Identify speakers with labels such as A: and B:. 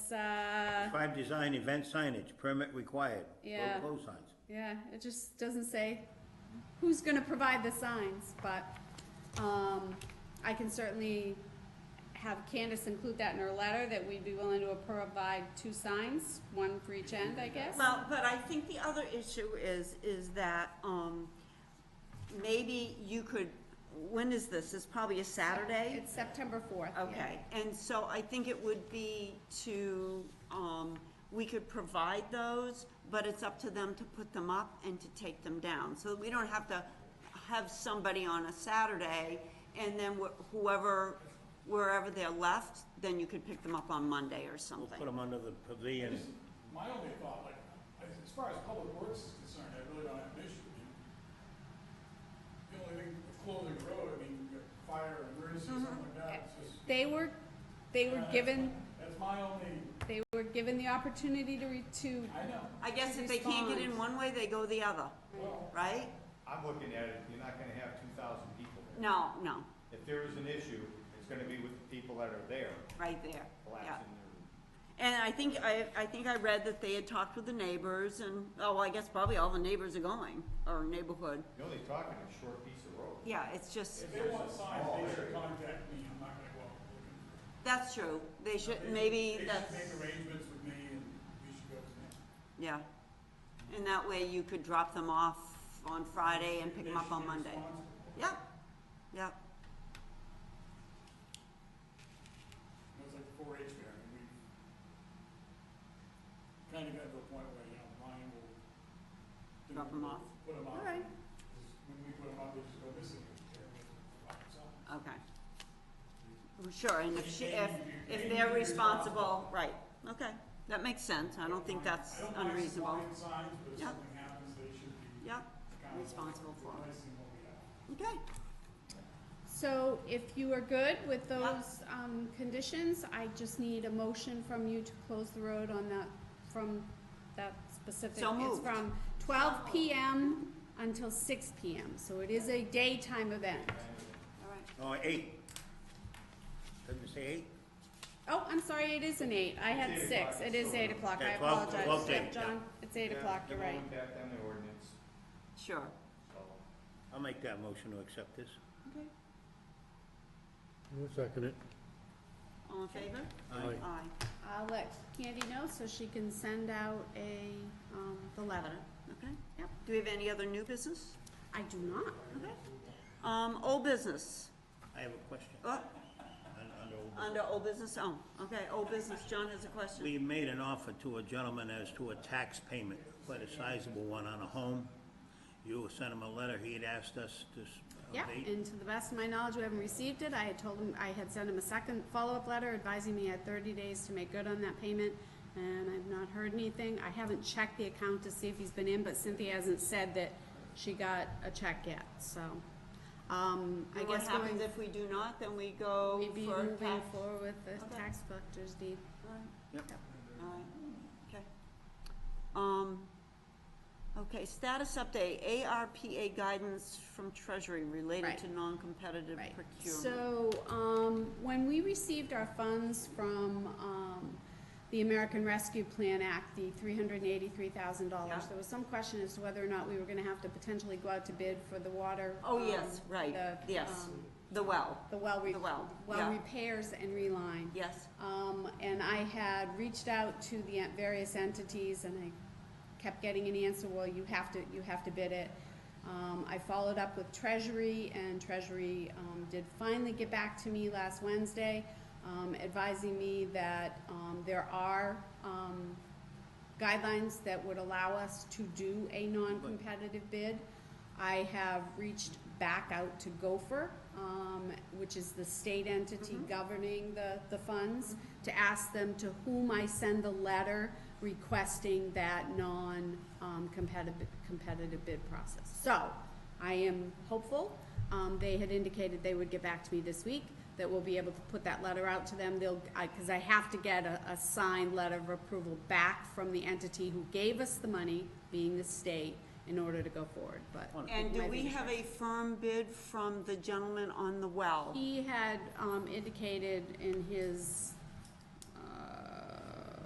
A: it's, uh,
B: Five, design event signage, permit required.
A: Yeah.
B: Road closed signs.
A: yeah, it just doesn't say who's gonna provide the signs, but, um, I can certainly have Candace include that in her letter, that we'd be willing to provide two signs, one for each end, I guess.
C: Well, but I think the other issue is, is that, um, maybe you could, when is this? It's probably a Saturday?
A: It's September fourth, yeah.
C: Okay, and so I think it would be to, um, we could provide those, but it's up to them to put them up and to take them down. So we don't have to have somebody on a Saturday and then wh- whoever, wherever they're left, then you could pick them up on Monday or
B: We'll
C: something.
B: put them under the pavilion.
D: My only thought, like, as as far as public works is concerned, I really don't have an issue. I mean, The only thing, with closing the road, I mean, you've got fire, emergency, something like that, it's just.
A: They were, they were
D: that's
A: given,
D: my- That's my only,
A: they were given the opportunity to, re- to,
D: I know,
C: I guess if they can't get in one way, they go the other,
D: well,
C: right?
E: I'm looking at it, you're not gonna have two thousand people there.
C: No, no,
E: If there is an issue, it's gonna be with the people that are there
C: right there, yeah.
E: collapsing their.
C: And I think, I, I think I read that they had talked with the neighbors and, oh, well, I guess probably all the neighbors are going, or neighborhood.
E: You're only talking a short piece of road.
C: Yeah, it's just,
D: if they want signs, they should contact me, I'm not gonna go out looking.
C: that's true, they should,
D: They should-
C: maybe that's,
D: They should make arrangements with me and we should go to them.
C: yeah. And that way you could drop them off on Friday and pick them up on Monday. Yep, yep,
D: It was like the four H fair, and we kind of got to a point where, you know, Ryan will. do-
C: Drop 'em off.
D: Put them
C: all
D: up.
C: right,
D: 'Cause When we put them up, they just go missing.
C: okay. Well, Sure, and if she, if, if they're responsible, right, okay, that makes sense, I don't think that's unreasonable.
D: I don't mind supplying signs, but if
C: Yep.
D: something happens, they should be.
C: Yep,
D: accountable
C: responsible for it.
D: Replacing what we have.
C: okay.
A: so if you are good with
C: Yep.
A: those, um, conditions, I just need a motion from you to close the road on that, from that specific.
C: So moved.
A: It's from twelve PM until six PM, so it is a daytime event.
C: All right.
B: Oh, eight. Doesn't it say eight?
A: Oh, I'm sorry, it is an eight, I had
E: It's eight
A: six,
E: o'clock,
A: it is
E: so-
A: eight o'clock, I
B: Yeah, 12
A: apologize,
B: 12 to
A: Yeah,
B: eight, yeah.
A: John, it's eight
E: Yeah,
A: o'clock, you're
E: They're
A: right.
E: going back down the ordinance,
C: Sure.
E: so.
B: I'll make that motion to accept this.
C: Okay.
F: I'll second it.
C: All in favor?
F: Aye.
C: Aye.
A: I'll let Candy know so she can send out a, um, the letter.
C: Okay, yep. Do we have any other new business?
A: I do not.
C: Okay. Um, old business.
B: I have a question.
C: Oh,
B: Un- under old business.
C: under old business, oh, okay, old business. John has a question.
B: We made an offer to a gentleman as to a tax payment, quite a sizable one on a home. You sent him a letter, he had asked us to. s- uh,
A: Yeah,
B: abate.
A: and to the best of my knowledge, we haven't received it. I had told him, I had sent him a second follow-up letter advising me I had thirty days to make good on that payment, and I've not heard anything. I haven't checked the account to see if he's been in, but Cynthia hasn't said that she got a check yet, so. Um, I
C: And what
A: guess going,
C: happens if we do not, then we go
A: we'd be
C: for
A: moving
C: tax?
A: forward with the
C: Okay.
A: tax collector's deed.
B: Yep.
C: All right, okay. Um, okay, status update, ARPA guidance from Treasury related
A: Right.
C: to non-competitive
A: Right.
C: procurement.
A: So, um, when we received our funds from, um, the American Rescue Plan Act, the three hundred and eighty-three thousand dollars,
C: Yeah.
A: there was some question as to whether or not we were gonna have to potentially go out to bid for the water.
C: Oh,
A: um,
C: yes, right,
A: the,
C: yes.
A: um,
C: The well,
A: The well re-
C: The well, yeah.
A: well repairs and reline.
C: yes.
A: Um, and I had reached out to the en- various entities and I kept getting an answer, well, you have to, you have to bid it. Um, I followed up with Treasury and Treasury, um, did finally get back to me last Wednesday, um, advising me that, um, there are, um, guidelines that would allow us to do a non-competitive bid. I have reached back out to Gopher, um, which is the state entity governing the, the funds, to ask them to whom I send the letter requesting that non, um, competitive, competitive bid process. So, I am hopeful. Um, they had indicated they would get back to me this week, that we'll be able to put that letter out to them. They'll, I, cause I have to get a, a signed letter of approval back from the entity who gave us the money, being the state, in order to go forward, but.
C: And do
A: Might
C: we
A: be-
C: have a firm bid from the gentleman on the well?
A: He had, um, indicated in his uh,